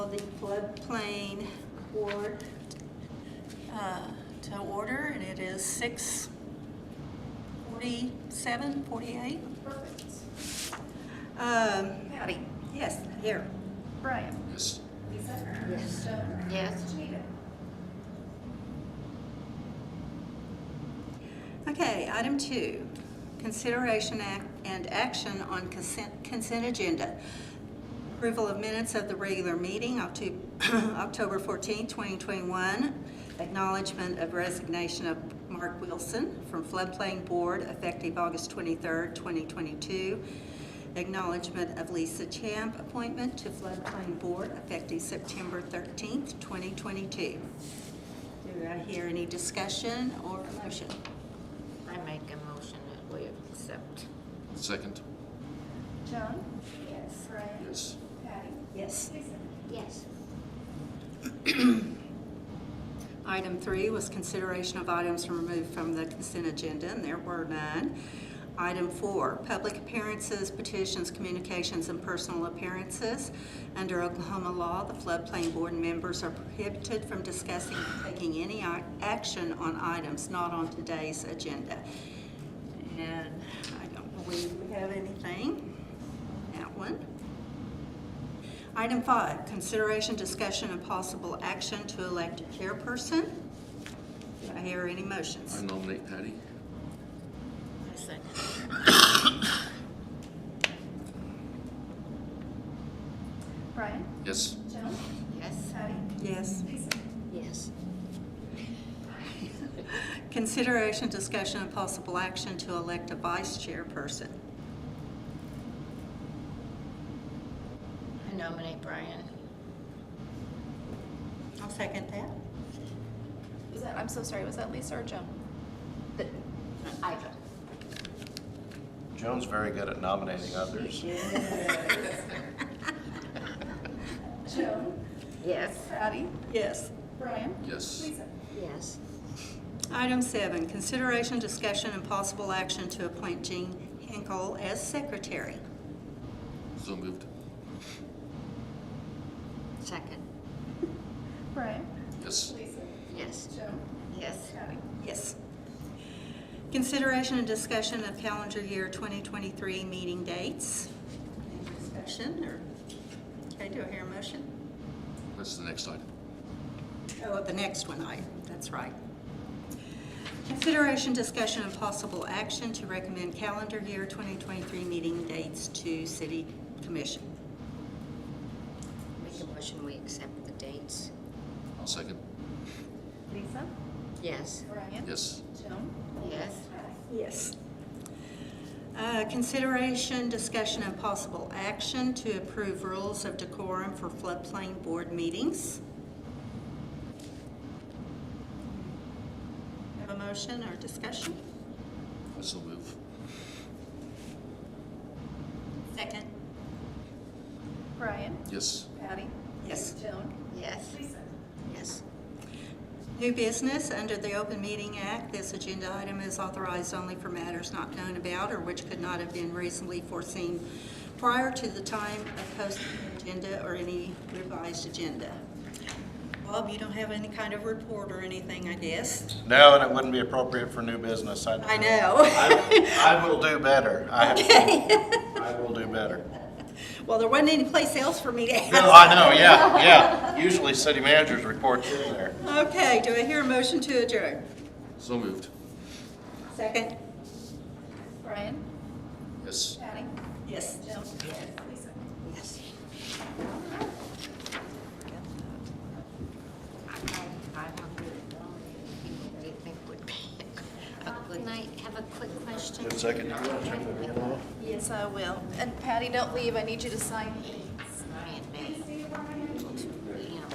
floodplain board uh, to order, and it is six forty-seven, forty-eight. Perfect. Um, Patty? yes, here. Brian? Yes. Lisa? Yes. Stover? Yes. Janita? Okay, item two, consideration ac- and action on consent, consent agenda. Approval of minutes of the regular meeting, Octo- October 14, 2021. Acknowledgement of resignation of Mark Wilson from floodplain board effective August 23, 2022. Acknowledgement of Lisa Champ appointment to floodplain board effective September 13, 2022. Do I hear any discussion or motion? I make a motion that we accept. Second. Joan? Yes. Brian? Yes. Patty? Yes. Lisa? Yes. Item three was consideration of items removed from the consent agenda, and there were none. Item four, public appearances, petitions, communications, and personal appearances. Under Oklahoma law, the floodplain board members are prohibited from discussing or taking any ac- action on items not on today's agenda. And I don't believe we have anything. That one. Item five, consideration, discussion, and possible action to elect a chairperson. Do I hear any I motions? nominate Patty. I second. Brian? Yes. Joan? Yes. Patty? Yes. Lisa? Yes. Consideration, discussion, and possible action to elect a vice chairperson. I nominate Brian. I'll second that. Was that, I'm so sorry, was that Lisa or Joan? I. Joan's very good at nominating others. Joan? Yes. Patty? Yes. Brian? Yes. Lisa? Yes. Item seven, consideration, discussion, and possible action to appoint Jean Hinkle as secretary. So moved. Second. Brian? Yes. Lisa? Yes. Joan? Yes. Patty? Yes. Consideration and discussion of calendar year 2023 meeting dates. Any Discussion or, okay, do I hear a motion? That's the next item. Oh, the next one, I, that's right. Consideration, discussion, and possible action to recommend calendar year 2023 meeting dates to city commission. Make a motion we accept the dates. I'll second. Lisa? Yes. Brian? Yes. Joan? Yes. Patty? Yes. Uh, Consideration, discussion, and possible action to approve rules of decorum for floodplain board meetings. Have a motion or discussion? I so move. Second. Brian? Yes. Patty? Yes. Joan? Yes. Lisa? Yes. New business, under the Open Meeting Act, this agenda item is authorized only for matters not known about or which could not have been reasonably foreseen prior to the time of posting the agenda or any revised agenda. Bob, you don't have any kind of report or anything, I guess? No, and it wouldn't be appropriate for new business. I I know. I will do better. I have- I will do better. Well, there wasn't any place else for me to No, ask. I know, yeah, yeah. Usually city managers report in there. Okay, do I hear a motion to adjourn? So moved. Second? Brian? Yes. Patty? Yes. Joan? Yes. Lisa? Yes. I want to nominate people that you think would be a good Can I have a quick question? Good second. You wanna turn the video off? Yes, I will. And Patty, don't leave, I need you to sign these. Brian, maybe.